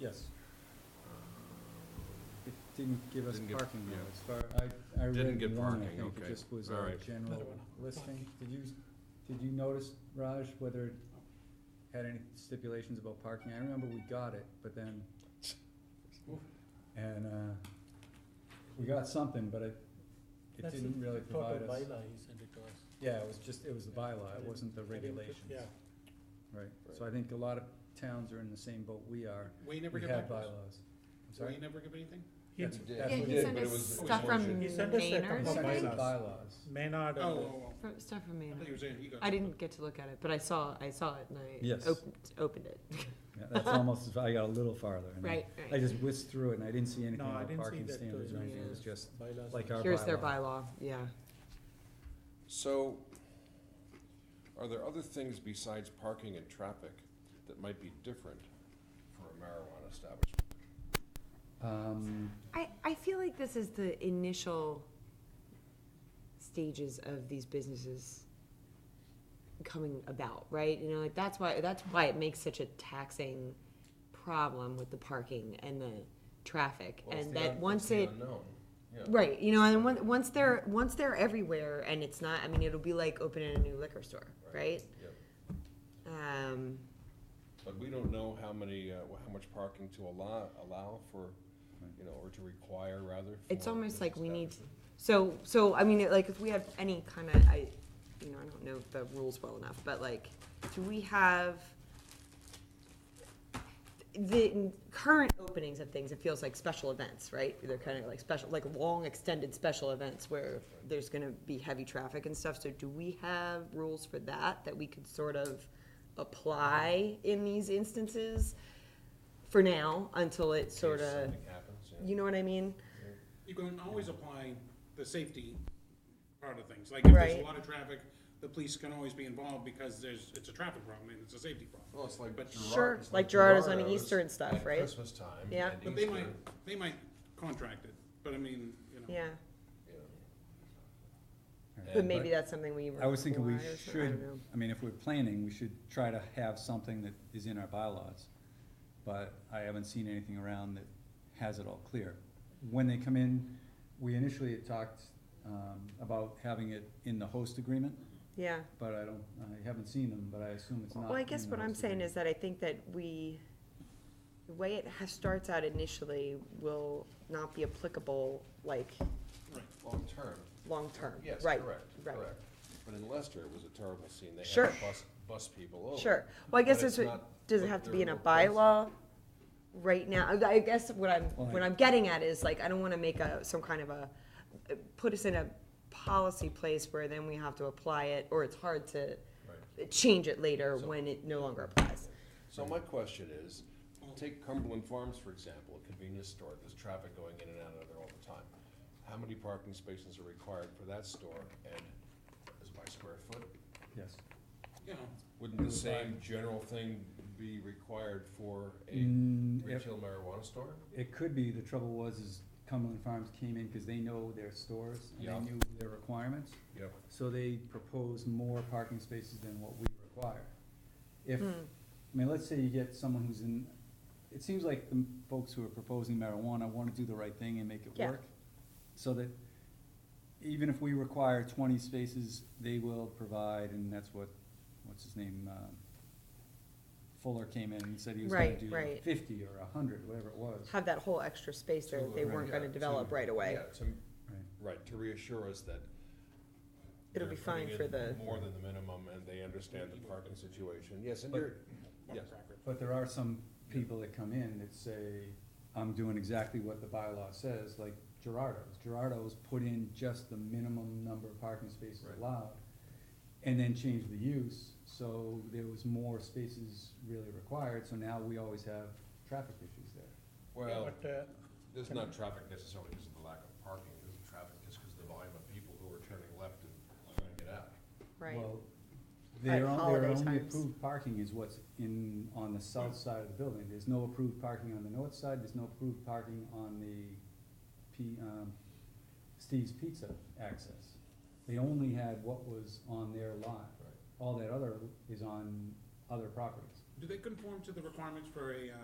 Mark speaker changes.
Speaker 1: Yes. It didn't give us
Speaker 2: Didn't give-
Speaker 1: parking
Speaker 2: yeah.
Speaker 1: though, as far, I, I
Speaker 2: Didn't
Speaker 1: read
Speaker 2: give
Speaker 1: one, I
Speaker 2: parking,
Speaker 1: think, it
Speaker 2: okay.
Speaker 1: just was
Speaker 2: All
Speaker 1: a
Speaker 2: right.
Speaker 1: general listing. Did you, did you notice, Raj, whether it had any stipulations about parking? I remember we got it, but then, and, uh, we got something, but it, it
Speaker 3: That's
Speaker 1: didn't
Speaker 3: it.
Speaker 1: really
Speaker 3: I thought
Speaker 1: provide
Speaker 3: the
Speaker 1: us.
Speaker 3: bylaw he sent it to us.
Speaker 1: Yeah, it was just, it was the
Speaker 3: I
Speaker 1: bylaw, it
Speaker 3: didn't-
Speaker 1: wasn't the
Speaker 3: I didn't put-
Speaker 1: regulations.
Speaker 3: Yeah,
Speaker 1: Right, so I think a lot of towns are in the same boat we are.
Speaker 4: We never
Speaker 1: We
Speaker 4: get
Speaker 1: have
Speaker 4: back to us?
Speaker 1: bylaws. I'm
Speaker 4: So
Speaker 1: sorry?
Speaker 4: you never give anything?
Speaker 3: he,
Speaker 1: That's-
Speaker 3: he
Speaker 1: Yeah,
Speaker 5: Yeah,
Speaker 1: we
Speaker 5: he
Speaker 1: did,
Speaker 5: sent
Speaker 2: but it
Speaker 5: us
Speaker 2: was- it was
Speaker 5: stuff from
Speaker 2: motion.
Speaker 3: He sent us a
Speaker 5: Maynard,
Speaker 3: couple
Speaker 5: I
Speaker 1: Sent us
Speaker 5: think.
Speaker 3: bylaws.
Speaker 1: bylaws.
Speaker 3: Maynard
Speaker 4: Oh,
Speaker 3: and the-
Speaker 4: oh, oh.
Speaker 5: From- Stuff from
Speaker 4: I thought you
Speaker 5: Maynard.
Speaker 4: were saying you got.
Speaker 5: I didn't get to look at it, but I saw, I saw it and
Speaker 1: Yes.
Speaker 5: I opened, opened it.
Speaker 1: Yeah, That's almost, as- I got a little farther. and I-
Speaker 5: Right,
Speaker 1: I
Speaker 5: right.
Speaker 1: just whizzed through it and I didn't see anything
Speaker 3: No, I
Speaker 1: about
Speaker 3: didn't see
Speaker 1: parking
Speaker 3: that, uh,
Speaker 1: standards or anything, it was
Speaker 5: yeah.
Speaker 1: just
Speaker 3: bylaws.
Speaker 1: like our bylaw.
Speaker 5: Here's their bylaw, yeah.
Speaker 2: So, are there other things besides parking and traffic that might be different for a marijuana establishment?
Speaker 1: Um,
Speaker 5: I, I feel like this is the initial stages of these businesses coming about, right? You know, like that's why, that's why it makes such a taxing problem with the parking and the traffic.
Speaker 2: Well, it's
Speaker 5: And
Speaker 2: the
Speaker 5: that
Speaker 2: un- it's
Speaker 5: once
Speaker 2: the
Speaker 5: it,
Speaker 2: unknown, yeah.
Speaker 5: Right, you know, and on- once they're, once they're everywhere and it's not, I mean, it'll be like opening a new liquor store, right?
Speaker 2: Yep.
Speaker 5: Um,
Speaker 2: But we don't know how many, uh, wh- how much parking to allow, allow for, you know, or to require rather.
Speaker 5: It's
Speaker 2: for
Speaker 5: almost
Speaker 2: this
Speaker 5: like we need-
Speaker 2: establishment.
Speaker 5: so, so, I mean, like, if we have any kind of, I, you know, I don't know the rules well enough, but like, do we have the current openings of things, it feels like special events, right? They're kind of like special, like long extended special events where there's gonna be heavy traffic and stuff, so do we have rules for that, that we could sort of apply in these instances for now, until it
Speaker 2: In case
Speaker 5: sort of,
Speaker 2: Something happens, yeah.
Speaker 5: you know what I mean?
Speaker 4: You can always apply the safety part of things, like if there's a
Speaker 5: Right.
Speaker 4: lot of traffic, the police can always be involved because there's, it's a traffic problem and it's a safety problem.
Speaker 2: Well, it's like
Speaker 4: But-
Speaker 2: Gerard-
Speaker 5: Sure,
Speaker 2: it's
Speaker 5: like Gerardo's on
Speaker 2: Gerardo's
Speaker 5: Easter and stuff,
Speaker 2: at
Speaker 5: right?
Speaker 2: Christmas time
Speaker 5: Yeah.
Speaker 2: and
Speaker 4: But they
Speaker 2: Easter,
Speaker 4: might, they might contract it, but I mean, you know.
Speaker 5: Yeah,
Speaker 2: you know.
Speaker 5: but
Speaker 2: And-
Speaker 5: maybe that's something we.
Speaker 1: I was thinking we
Speaker 5: require, so I don't
Speaker 1: should,
Speaker 5: know.
Speaker 1: I mean, if we're planning, we should try to have something that is in our bylaws. But I haven't seen anything around that has it all clear. When they come in, we initially had talked, um, about having it in the host agreement,
Speaker 5: Yeah,
Speaker 1: but I don't, I haven't seen them, but I assume it's not.
Speaker 5: well, I guess
Speaker 1: in the
Speaker 5: what I'm
Speaker 1: host
Speaker 5: saying
Speaker 1: agreement.
Speaker 5: is that I think that we, the way it has, starts out initially will not be applicable, like,
Speaker 2: Long term.
Speaker 5: long-term,
Speaker 2: Yes,
Speaker 5: right?
Speaker 2: correct,
Speaker 5: right.
Speaker 2: correct. But in Leicester, it was a terrible scene. They
Speaker 5: Sure.
Speaker 2: had to bus, bus people over.
Speaker 5: Sure, well, I guess
Speaker 2: But it's
Speaker 5: that's what,
Speaker 2: not
Speaker 5: does it
Speaker 2: what
Speaker 5: have to
Speaker 2: they're
Speaker 5: be in a
Speaker 2: replacing.
Speaker 5: bylaw right now? I I guess what I'm,
Speaker 1: Well,
Speaker 5: what
Speaker 1: I-
Speaker 5: I'm getting at is like, I don't wanna make a, some kind of a, put us in a policy place where then we have to apply it, or it's hard to
Speaker 2: Right.
Speaker 5: change it later
Speaker 2: So-
Speaker 5: when it no longer applies.
Speaker 2: So my question is, take Cumberland Farms, for example, a convenience store, there's traffic going in and out of there all the time. How many parking spaces are required for that store and is it by square foot?
Speaker 1: Yes.
Speaker 4: You know,
Speaker 2: Wouldn't the same general thing be required for a
Speaker 1: Mm, if-
Speaker 2: retail marijuana store?
Speaker 1: It could be, the trouble was is Cumberland Farms came in because they know their stores and
Speaker 2: Yeah.
Speaker 1: they knew their requirements.
Speaker 2: Yep.
Speaker 1: So they proposed more parking spaces than what we require.
Speaker 5: Hmm.
Speaker 1: If, I mean, let's say you get someone who's in, it seems like the folks who are proposing marijuana wanna do the right thing and make it
Speaker 5: Yeah.
Speaker 1: work. So that even if we require twenty spaces, they will provide, and that's what, what's his name, um, Fuller came in and said he was gonna
Speaker 5: Right,
Speaker 1: do
Speaker 5: right.
Speaker 1: fifty or hundred, whatever it was.
Speaker 5: Have that whole extra space there that they weren't gonna develop right away.
Speaker 2: Yeah, to,
Speaker 1: Right.
Speaker 2: right, to reassure us that.
Speaker 5: It'll be
Speaker 2: they're putting
Speaker 5: fine for
Speaker 2: in
Speaker 5: the-
Speaker 2: More than the minimum and they understand the parking situation. Yes, and
Speaker 1: But-
Speaker 2: you're, yes.
Speaker 4: contractor.
Speaker 1: But there are some people that come in that say, I'm doing exactly what the bylaw says, like Gerardo's. Gerardo's put in just the minimum number of parking spaces
Speaker 2: Right.
Speaker 1: allowed, and then changed the use, so there was more spaces really required, so now we always have traffic issues there.
Speaker 2: well.
Speaker 3: But, uh,
Speaker 2: There's not traffic necessarily because of the lack of parking, there's traffic just because of the volume of people who are turning left and trying to get out.
Speaker 5: Right.
Speaker 1: Well, Their
Speaker 5: At
Speaker 1: on- their
Speaker 5: holiday
Speaker 1: only
Speaker 5: times. Mm.
Speaker 1: approved parking is what's in, on the south side of the building, there's no approved parking on the north side, there's no approved parking on the P, um, Steve's Pizza access. They only had what was on their lot,
Speaker 2: Right.
Speaker 1: all that other is on other properties.
Speaker 4: Do they conform to the requirements for a, uh,